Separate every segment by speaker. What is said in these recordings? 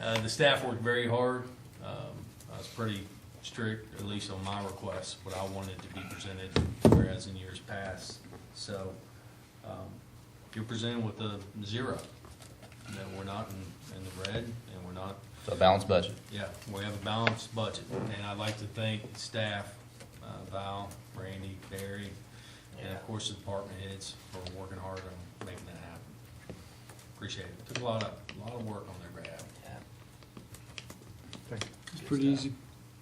Speaker 1: Uh, the staff worked very hard. Um, I was pretty strict, at least on my request, what I wanted to be presented, whereas in years past. So, um, you're presented with a zero. That we're not in, in the red and we're not
Speaker 2: So balanced budget.
Speaker 1: yeah, we have a balanced budget, and I'd like to thank staff, uh, Val, Randy, Barry, and of course, the department heads for working hard on making that happen. Appreciate it. Took a lot of, a lot of work on their behalf.
Speaker 3: It's pretty easy,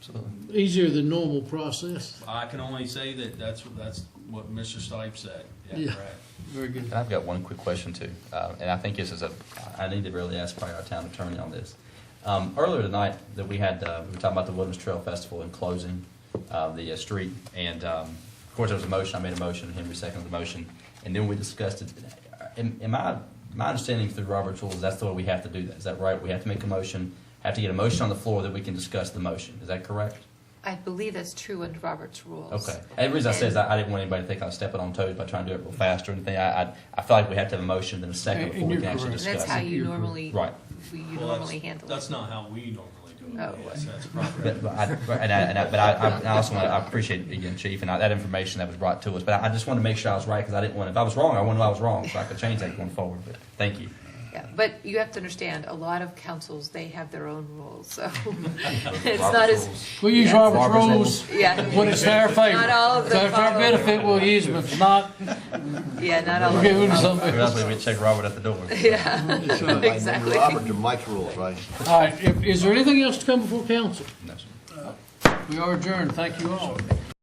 Speaker 2: Absolutely.
Speaker 3: easier than normal process.
Speaker 1: I can only say that that's, that's what Mr. Stipe said.
Speaker 3: Yeah.
Speaker 1: Yeah, correct.
Speaker 3: Very good.
Speaker 2: And I've got one quick question too, uh, and I think this is a, I need to really ask probably our town attorney on this. Um, earlier tonight that we had, uh, we were talking about the Wilderness Trail Festival and closing, uh, the uh, street. And, um, of course, there was a motion, I made a motion, Henry seconded the motion, and then we discussed it. Uh, Am, am I, my understanding through Robert's rules, that's the way we have to do that. Is that right? We have to make a motion, have to get a motion on the floor that we can discuss the motion. Is that correct?
Speaker 4: I believe that's true under Robert's rules.
Speaker 2: Okay. And the reason I say is I, I didn't want anybody to think I was stepping on toes by trying to do it real fast or anything. I, I, I feel like we have to have a motion and a second
Speaker 3: And-
Speaker 2: before
Speaker 3: and
Speaker 2: we
Speaker 3: you're
Speaker 2: can actually
Speaker 3: correct.
Speaker 4: And
Speaker 2: discuss.
Speaker 4: That's how
Speaker 2: it.
Speaker 4: you normally,
Speaker 2: Right.
Speaker 4: we- you
Speaker 1: Well, that's-
Speaker 4: normally handle it.
Speaker 1: That's not how we normally do
Speaker 4: Oh.
Speaker 1: it. Yes, that's proper.
Speaker 2: But, but I, but- and I, and I, but I, I- and I also want to, I appreciate it again, Chief, and I, that information that was brought to us. But I, I just wanted to make sure I was right because I didn't want, if I was wrong, I wanted to know I was wrong so I could change that going forward. But thank you.
Speaker 4: Yeah, But you have to understand, a lot of councils, they have their own rules, so it's
Speaker 2: Robert's
Speaker 4: not as,
Speaker 2: rules.
Speaker 3: We use Robert's
Speaker 2: Robert's
Speaker 3: rules when
Speaker 4: yeah,
Speaker 3: it's to our favor.
Speaker 4: Not all of
Speaker 3: If it's our
Speaker 4: them follow.
Speaker 3: benefit, we'll use them. If not,
Speaker 4: yeah, not all
Speaker 3: we'll
Speaker 4: of
Speaker 3: give
Speaker 4: them.
Speaker 3: them to
Speaker 2: Or
Speaker 3: somebody.
Speaker 2: else we would check Robert at the door.
Speaker 4: Yeah, exactly.
Speaker 5: Robert and Mike's rules, right?
Speaker 3: All right, if- is there anything else to come before council?
Speaker 2: No, sir.
Speaker 3: We are adjourned, thank you all.